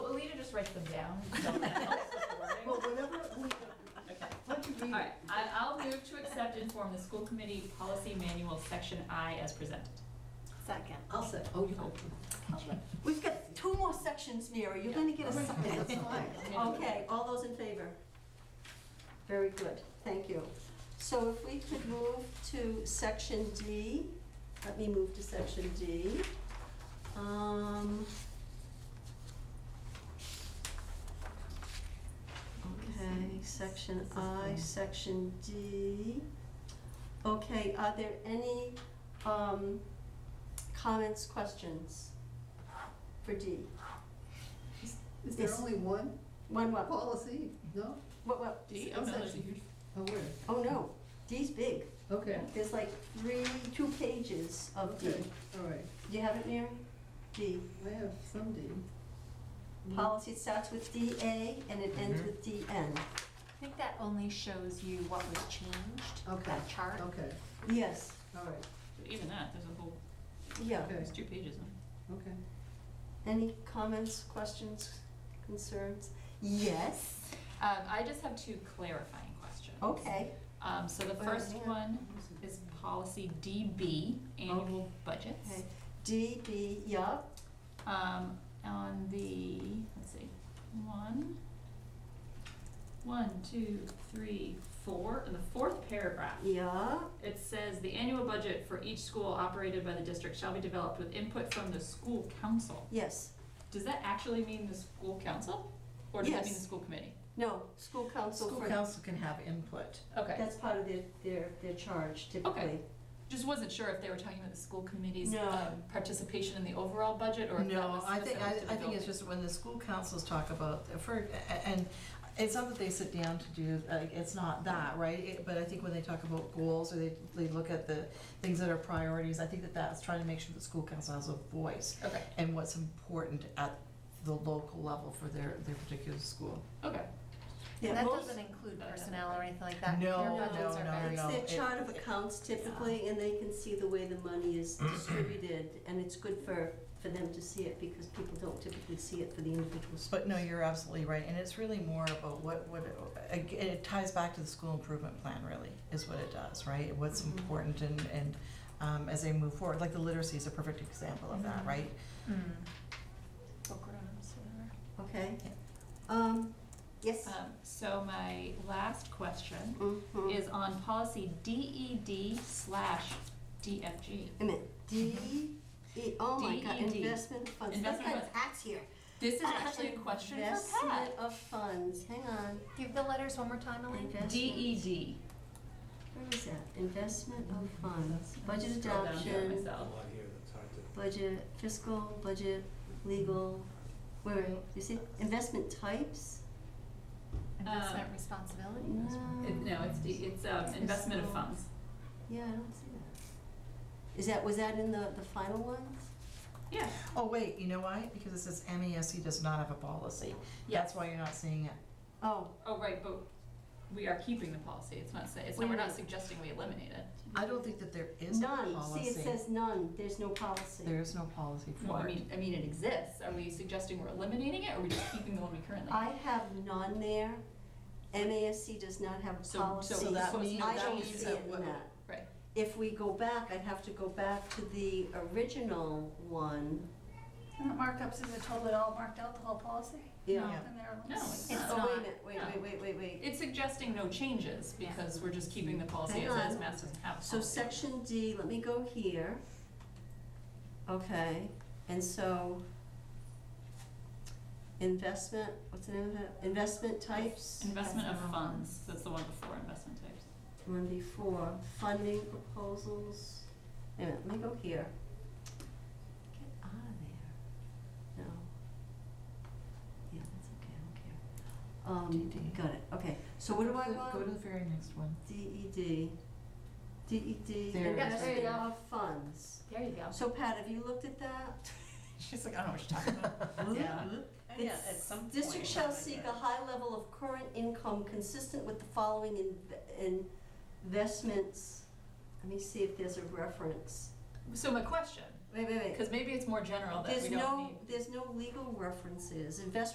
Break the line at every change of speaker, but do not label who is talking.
just write them down. oh, Someone else is learning.
Well, whenever we, let you
All
read
right,
it.
I, I'll move to accept and form the school committee policy manual, section I, as presented.
Second.
I'll say, oh, you go.
We've got two more sections, Mary, you're gonna get a
That's
second.
fine.
Okay, all those in favor? Very good, thank you. So if we could move to section D, let me move to section D. Um, Okay, section I, section D. Okay, are there any um, comments, questions for D?
Is there
Yes.
only one
One, what, what,
policy? No?
what?
D, oh no, there's a huge,
Oh, where?
Oh, no, D's big.
Okay.
There's like three, two pages of D.
Okay, Mm-hmm. all right.
Do you have it, Mary? D.
I have some D.
Policy starts with DA and it
Mm-hmm.
ends with DN.
I think that only shows you what was changed,
Okay.
that chart.
Okay,
Yes,
all right,
even that, there's a whole,
yeah.
okay,
there's two pages on it.
okay.
Any comments, questions, concerns? Yes,
Um, I just have two clarifying questions.
okay.
Um, so the
Well,
first
yeah.
one is policy DB, annual budgets.
Okay. DB, yup,
Um, on the, let's see, one, one, two, three, four, in the fourth paragraph,
yup,
it says, "The annual budget for each school operated by the district shall be developed with input from the school council."
yes.
Does that actually mean the school council? Or does that mean the
Yes.
school committee?
No, school council
School
for,
council can have input.
Okay,
that's part of their, their, their charge typically.
just wasn't sure if they were talking about the school committee's
No.
um, participation in the overall budget, or if that
No,
was
I think, I
specific to the
I think it's just when the school councils talk about, the fir- and it's not that they sit down to do, like, it's not that, right? It- But I think when they talk about goals, or they, they look at the things that are priorities, I think that that's trying to make sure the school council has a voice
building. Okay,
and what's important at the local level for their, their particular school.
okay.
Yeah,
And that
most-
doesn't include personnel or anything like that.
No,
Their budgets
no,
are
no,
very-
no.
It's
it-
their chart of accounts typically, and they can see the way the money is distributed, and it's good for, for them to see it, because people don't typically see it for the individual schools.
But no, you're absolutely right, and it's really more about what, what, ag- it ties back to the school improvement plan, really, is what it does, right? What's important and, and um, as they move forward, like the literacy is a perfect example of that, right?
Mm.
Okay?
Yeah.
Um, yes?
Um, So my last question
Mhm.
is on policy DED slash DFG.
Wait a minute, D, E, oh my God,
DED.
investment funds, that's
Investment
got
funds.
Pat's here.
This is actually a question for
Investment
Pat.
of funds, hang on,
Give the letters one more time, Elaine.
Investment.
DED.
where is that? Investment of
Oh,
funds, budget
Scroll down to it
adoption,
A
myself.
lot here that's hard to.
budget, fiscal, budget, legal, where, you see, investment types?
Um,
Investment responsibility.
No.
It- No, it's, D- it's um, investment of funds.
Yeah, I don't see that. Is that, was that in the, the final ones?
Yeah,
Oh, wait, you know why? Because it says MESC does not have a policy. That's why you're not seeing it.
Oh,
oh, right, but we are keeping the policy. It's not, say- it's not, we're not suggesting we eliminate it.
I don't think that there is a
none,
policy.
see, it says none, there's no policy.
There is no policy
Well, I
for it.
mean, I mean, it exists. Are we suggesting we're eliminating it, or are we just keeping the one we currently?
I have none there, MASC does not have a
So-
policy.
so that means-
I
that
don't
means
see
that
it
what-
in that.
Right.
If we go back, I'd have to go back to the original one.
And the markups, is it totally all marked out, the whole policy?
Yeah.
And there are-
No, it's
It's
not.
Oh, wait a
not.
minute, wait,
No.
wait, wait, wait, wait.
It's suggesting no changes because we're just keeping the policy
Hang
as is.
on.
Mass doesn't have a
So
policy.
section D, let me go here. Okay, and so investment, what's the name of that? Investment types?
Investment of funds, that's the one before investment types.
One before, funding proposals. Wait a minute, let me go here. Get out of there. No. Yeah, that's okay, I don't care. Um,
DD.
got it, okay. So what do I want? E
E Go to the very next one.
DED. DED,
There it is.
E investment of funds.
There you go.
So Pat, have you looked at that?
She's like, I don't know what you're talking about.
Yeah. District shall seek a high level of current income consistent with the following in- investments. Let me see if there's a reference.
So my question,
Wait, wait, wait.
because maybe it's more general that
There's
we don't need.
no, there's no legal references. Investment